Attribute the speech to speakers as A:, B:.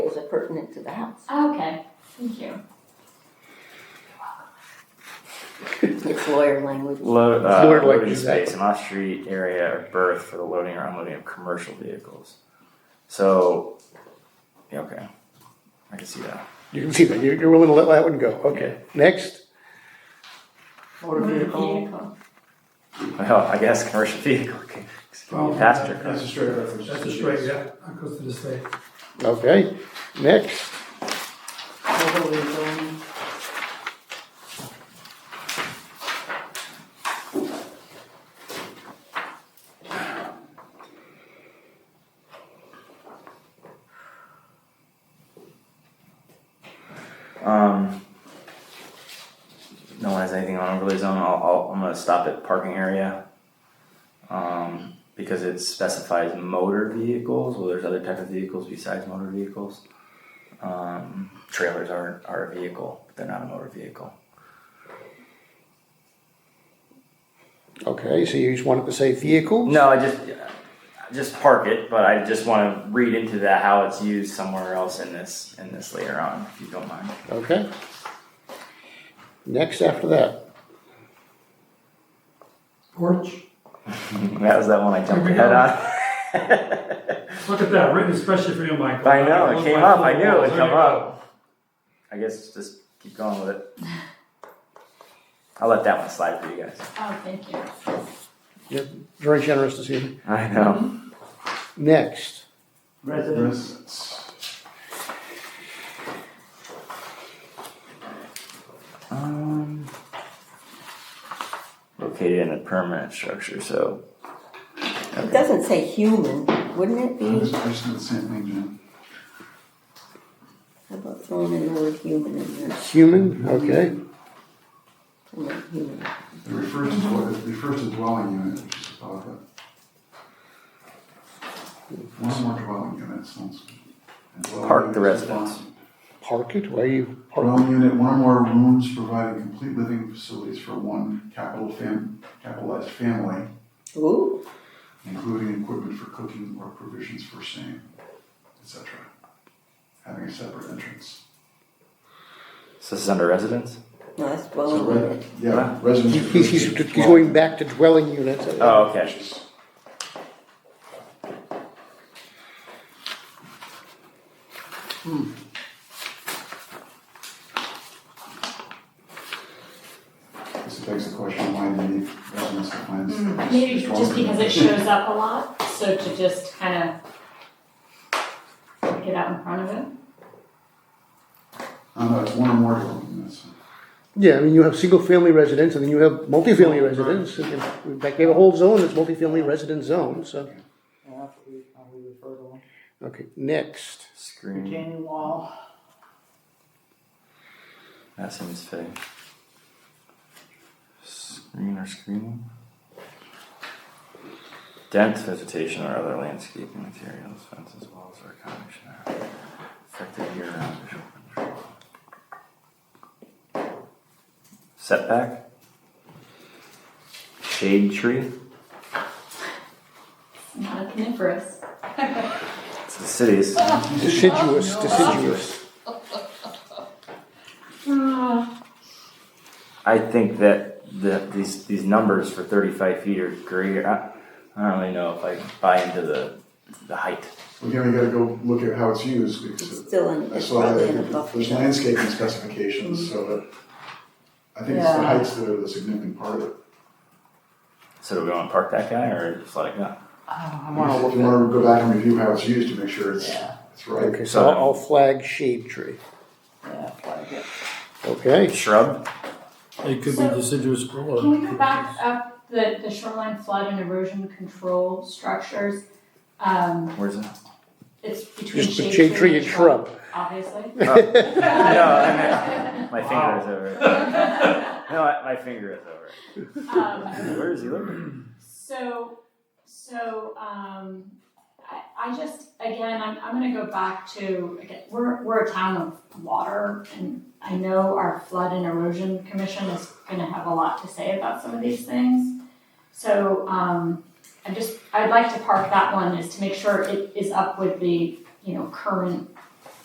A: pertinent to the house.
B: Okay, thank you.
A: It's lawyer language.
C: Load, uh,
D: Lord, what
C: loading
D: is that?
C: space, an off-street area or berth for the loading or unloading of commercial vehicles. So, yeah, okay, I can see that.
D: You can see that, you're, you're willing to let that one go, okay. Next,
A: Motor vehicle.
C: Well, I guess commercial vehicle can can be a passenger car.
E: That's a straight reference.
F: Oh, That's a straight, yeah, that goes to the state.
D: okay, next,
A: Motor vehicle.
C: Um, no one has anything on overlay zone. I'll, I'll, I'm gonna stop at parking area. Um, because it specifies motor vehicles. Well, there's other types of vehicles besides motor vehicles. Um, trailers are are a vehicle, but they're not a motor vehicle.
D: okay, so you just wanted to say vehicles?
C: No, I just I just park it, but I just want to read into that how it's used somewhere else in this in this later on, if you don't mind.
D: Okay. Next after that,
F: Porch,
C: That was that one I jumped ahead on.
F: look at that, written especially for you, Michael.
C: I know, it came up, I knew it would
F: There
C: come
F: you
C: up. I guess just keep going with it. I'll let that one slide for you guys.
B: Oh, thank you.
D: you're very generous this evening.
C: I know.
D: Next,
E: Residence.
C: Um, located in a permanent structure, so
A: It doesn't say human, wouldn't it
E: I was
A: be?
E: the same thing, Jim.
A: How about throwing in the word human in there?
D: human, okay,
A: Human, human.
E: It refers to, dwe- it refers to dwelling unit, which is about it. One or more dwelling unit sounds. and dwelling
C: Park the
E: unit is
C: residence.
E: defined.
D: park it, where you park,
E: Dwelling unit, one or more rooms providing complete living facilities for one capital fam, capitalized family,
A: Ooh,
E: including equipment for cooking or provisions for same, etc. Having a separate entrance.
C: so this is under residence.
A: no, that's
E: So,
A: dwelling
E: re-
A: unit.
E: yeah, residence.
D: He- he's, he's
E: refers to
D: he's going back to dwelling units.
C: Oh,
E: dwelling,
C: okay.
E: which is- Hmm. This begs the question, why do you need residence defines?
B: Hmm, Maybe just because it shows up a lot, so to just kind of get out in front of it.
E: Oh, no, it's one or more dwelling units.
D: Yeah, I mean, you have single-family residence, and then you have multifamily residence, and then in fact, we have a whole zone that's multifamily resident zone, so,
G: Yeah, that's what we, how we refer to them.
D: okay, next.
C: Screen.
G: Retaining wall,
C: That seems fitting. Screen or screening? Dense vegetation or other landscaping materials, fences, walls, or a combination thereof. Effective year-round visual control. Setback? Shade tree?
B: It's Not a coniferous.
C: It's the cities.
D: Deciduous,
G: Oh,
D: deciduous.
C: I think that the, these these numbers for 35 feet or greater, I, I don't really know if I buy into the the height.
E: Well, Again, we gotta go look at how it's used,
A: It's
E: because
A: still in,
E: I
A: it's
E: saw
A: probably in a
E: that
A: buffer
E: there's
A: zone.
E: landscaping specifications, so that, I think it's the
G: Yeah.
E: heights that are the significant part of it.
C: So do we want to park that guy or just let it go?
G: I
E: If
G: wanna
E: you
G: look
E: wanna go back and review how it's used to make sure it's,
G: Yeah.
E: it's right.
D: Okay, so I'll I'll flag shade tree,
G: at, yeah, flag it.
D: okay?
C: Shrub?
H: It could be
B: So-
H: deciduous or.
B: Can we go back up the, the shoreline flood and erosion control structures? Um,
C: Where's that?
B: it's between
D: Just the shade tree and shrub.
B: Obviously.
C: Oh. No, I mean, my finger is over it. No, I- my finger is over it.
B: Um,
C: Where is he living?
B: So, so, um, I, I just, again, I'm, I'm gonna go back to, again, we're, we're a town of water, and I know our flood and erosion commission is gonna have a lot to say about some of these things. So, um, I'm just, I'd like to park that one, is to make sure it is up with the, you know, current